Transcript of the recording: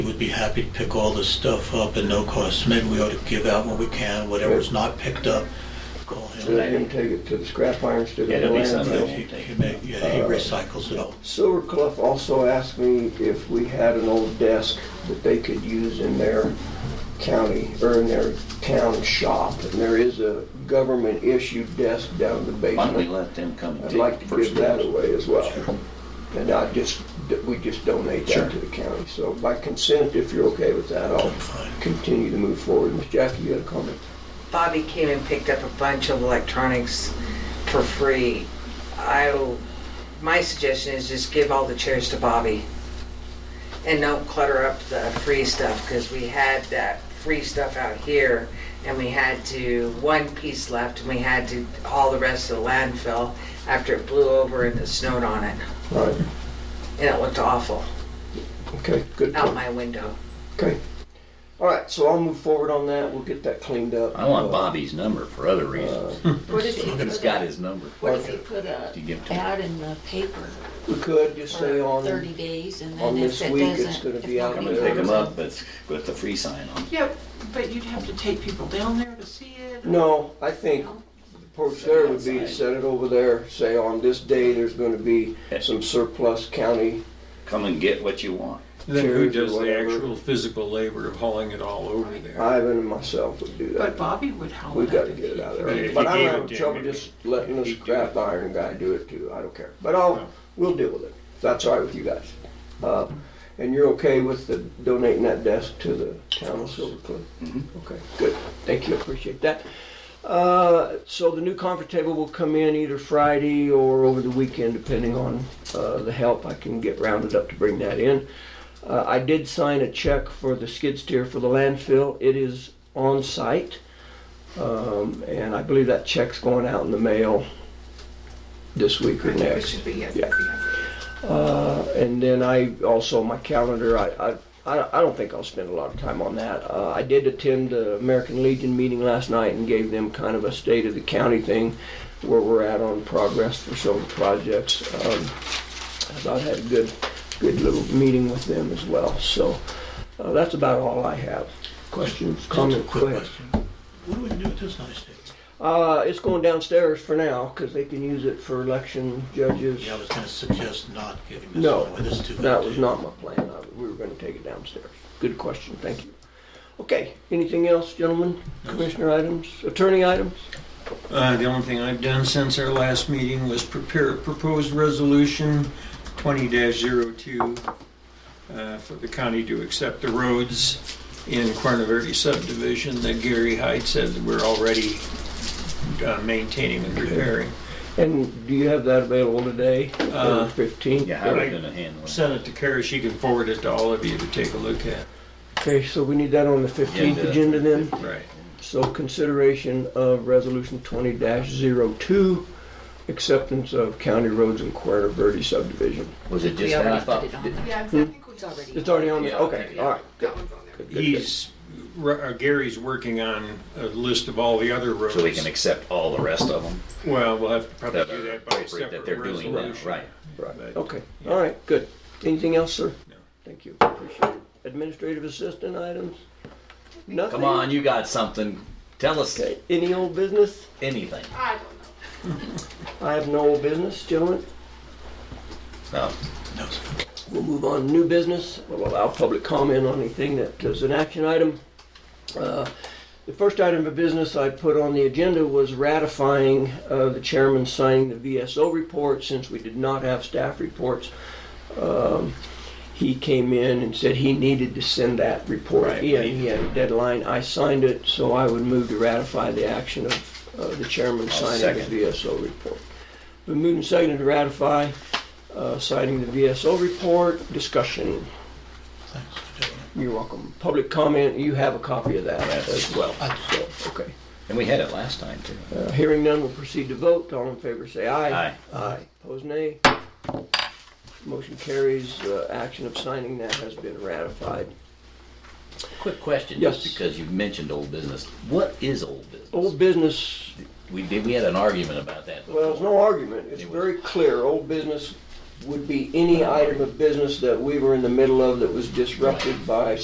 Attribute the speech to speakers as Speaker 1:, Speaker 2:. Speaker 1: We'd be happy to pick all this stuff up at no cost. Maybe we ought to give out what we can, whatever's not picked up. Call
Speaker 2: So
Speaker 1: him.
Speaker 2: let him take it to the scrap irons to
Speaker 3: Yeah,
Speaker 2: the
Speaker 3: there'll be
Speaker 2: landfill.
Speaker 3: some.
Speaker 1: Yeah, He he make- yeah,
Speaker 2: Uh,
Speaker 1: he recycles it all.
Speaker 2: Silver Cliff also asked me if we had an old desk that they could use in their county, or in their town shop. And there is a government-issued desk down in the
Speaker 3: Why don't we
Speaker 2: basement.
Speaker 3: let them come and
Speaker 2: I'd
Speaker 3: take
Speaker 2: like
Speaker 3: the
Speaker 2: to
Speaker 3: first
Speaker 2: give that
Speaker 3: dibs?
Speaker 2: away as well. And I just, that we just donate
Speaker 3: Sure.
Speaker 2: that to the county. So by consent, if you're okay with that, I'll
Speaker 1: Fine.
Speaker 2: continue to move forward. Miss Jackie, you had a comment?
Speaker 4: Bobby came and picked up a bunch of electronics for free. I, my suggestion is just give all the chairs to Bobby. And don't clutter up the free stuff, because we had that free stuff out here, and we had to, one piece left, and we had to haul the rest to the landfill after it blew over and it snowed on it,
Speaker 2: All right,
Speaker 4: and it looked awful
Speaker 2: okay, good.
Speaker 4: out
Speaker 2: point.
Speaker 4: my window.
Speaker 2: Okay. All right, so I'll move forward on that. We'll get that cleaned up.
Speaker 3: I want Bobby's number for other reasons.
Speaker 2: Uh,
Speaker 5: What if he
Speaker 3: He's
Speaker 5: put
Speaker 3: got
Speaker 5: a,
Speaker 3: his number.
Speaker 5: what if he put a
Speaker 3: You give to him.
Speaker 5: ad in the paper
Speaker 2: We could just say
Speaker 5: for
Speaker 2: on,
Speaker 5: thirty days and
Speaker 2: on
Speaker 5: then if
Speaker 2: this
Speaker 5: it
Speaker 2: week, it's
Speaker 5: doesn't.
Speaker 2: gonna
Speaker 5: if
Speaker 2: be out
Speaker 3: Come
Speaker 5: nobody
Speaker 3: and pick
Speaker 5: comes
Speaker 3: them up, but with the free sign on.
Speaker 6: Yeah, but you'd have to take people down there to see it.
Speaker 2: no, I think the approach there would be to set it over there, say on this day, there's gonna be some surplus county.
Speaker 3: Come and get what you want.
Speaker 7: Then who
Speaker 2: chairs or
Speaker 7: does the
Speaker 2: whatever.
Speaker 7: actual physical labor of hauling it all over there?
Speaker 2: Ivan and myself would do
Speaker 6: But
Speaker 2: that.
Speaker 6: Bobby would help.
Speaker 2: We've gotta get it out of
Speaker 7: But if
Speaker 2: there.
Speaker 7: he
Speaker 2: But I'm
Speaker 7: gave
Speaker 2: having
Speaker 7: it to
Speaker 2: trouble
Speaker 7: him,
Speaker 2: just letting this
Speaker 7: he'd do
Speaker 2: crap
Speaker 7: it.
Speaker 2: iron guy do it too. I don't care. But I'll, we'll deal with it. If that's all right with you guys. Uh, and you're okay with the donating that desk to the town of Silver Cliff?
Speaker 7: Mm-hmm.
Speaker 2: Okay, good. Thank you. Appreciate that. Uh, so the new conference table will come in either Friday or over the weekend, depending on uh, the help I can get rounded up to bring that in. Uh, I did sign a check for the skid steer for the landfill. It is on site, um, and I believe that check's going out in the mail this week or
Speaker 6: It
Speaker 2: next.
Speaker 6: should be, yes,
Speaker 2: Yeah.
Speaker 6: yes, yes.
Speaker 2: Uh, and then I also my calendar. I, I I I don't think I'll spend a lot of time on that. Uh, I did attend the American Legion meeting last night and gave them kind of a state of the county thing, where we're at on progress for several projects. Um, I thought I had a good good little meeting with them as well. So uh, that's about all I have. Questions,
Speaker 1: Just a
Speaker 2: comments, Go
Speaker 1: quick
Speaker 2: ahead.
Speaker 1: question. What do we do with this nice day?
Speaker 2: Uh, it's going downstairs for now because they can use it for election judges.
Speaker 1: Yeah, I was gonna suggest not giving this
Speaker 2: No,
Speaker 1: one away. This is too good.
Speaker 2: that was not my plan. I- We were gonna take it downstairs. Good question, thank you. Okay, anything else, gentlemen? Commissioner items, attorney items?
Speaker 7: Uh, the only thing I've done since our last meeting was prepare a proposed resolution twenty 2 uh, for the county to accept the roads in Corona Verde subdivision that Gary Hyde said that we're already uh, maintaining and repairing.
Speaker 2: And do you have that available today,
Speaker 7: Uh,
Speaker 2: fifteenth?
Speaker 3: Yeah, how are we gonna handle it?
Speaker 7: Sent it to Kara, she can forward it to all of you to take a look at.
Speaker 2: Okay, so we need that on the fifteenth
Speaker 3: Agenda.
Speaker 2: agenda then?
Speaker 7: Right.
Speaker 2: So consideration of resolution twenty 2 acceptance of county roads in Cuerna Verde subdivision.
Speaker 3: Was it just
Speaker 5: We
Speaker 3: that I
Speaker 5: already
Speaker 3: thought?
Speaker 5: put it on.
Speaker 3: did-
Speaker 6: Yeah, I think we
Speaker 5: It's already.
Speaker 2: It's already on there,
Speaker 3: Yeah,
Speaker 2: okay,
Speaker 3: yeah.
Speaker 2: all right. good,
Speaker 6: That one's on there.
Speaker 2: good, good, good.
Speaker 7: He's, r- uh, Gary's working on a list of all the other roads.
Speaker 3: So we can accept all the rest of them
Speaker 7: Well, we'll have to probably
Speaker 3: that
Speaker 7: do
Speaker 3: are
Speaker 7: that by a
Speaker 3: appropriate
Speaker 7: separate
Speaker 3: that they're doing now,
Speaker 7: resolution.
Speaker 3: right?
Speaker 2: Right,
Speaker 7: But-
Speaker 2: okay,
Speaker 7: yeah.
Speaker 2: all right, good. Anything else, sir?
Speaker 7: No.
Speaker 2: Thank you, appreciate it. Administrative assistant items? Nothing?
Speaker 3: Come on, you got something. Tell us
Speaker 2: Okay, any old business?
Speaker 3: anything.
Speaker 6: I don't know.
Speaker 2: I have no old business, gentlemen.
Speaker 3: No.
Speaker 1: No, sir.
Speaker 2: We'll move on to new business. We'll allow public comment on anything that is an action item. Uh, The first item of business I put on the agenda was ratifying uh, the chairman signing the VSO report since we did not have staff reports. Um, He came in and said he needed to send that report
Speaker 3: Right,
Speaker 2: in.
Speaker 3: right.
Speaker 2: He had a deadline. I signed it, so I would move to ratify the action of uh, the chairman
Speaker 3: I'll
Speaker 2: signing the
Speaker 3: second.
Speaker 2: VSO report. Been moved and seconded to ratify uh, citing the VSO report, discussion.
Speaker 1: Thanks for doing it.
Speaker 2: You're welcome. Public comment, you have a copy of that as well. So, Okay.
Speaker 3: And we had it last time too.
Speaker 2: Uh, Hearing none, we'll proceed to vote. All in favor, say aye.
Speaker 3: Aye.
Speaker 2: Aye. Pose nay. Motion carries. Uh, Action of signing that has been ratified.
Speaker 3: Quick question,
Speaker 2: Yes.
Speaker 3: just because you've mentioned old business. What is old business?
Speaker 2: Old business,
Speaker 3: We did, we had an argument about that.
Speaker 2: well, there's no argument. It's very clear. Old business would be any item of business that we were in the middle of that was disrupted by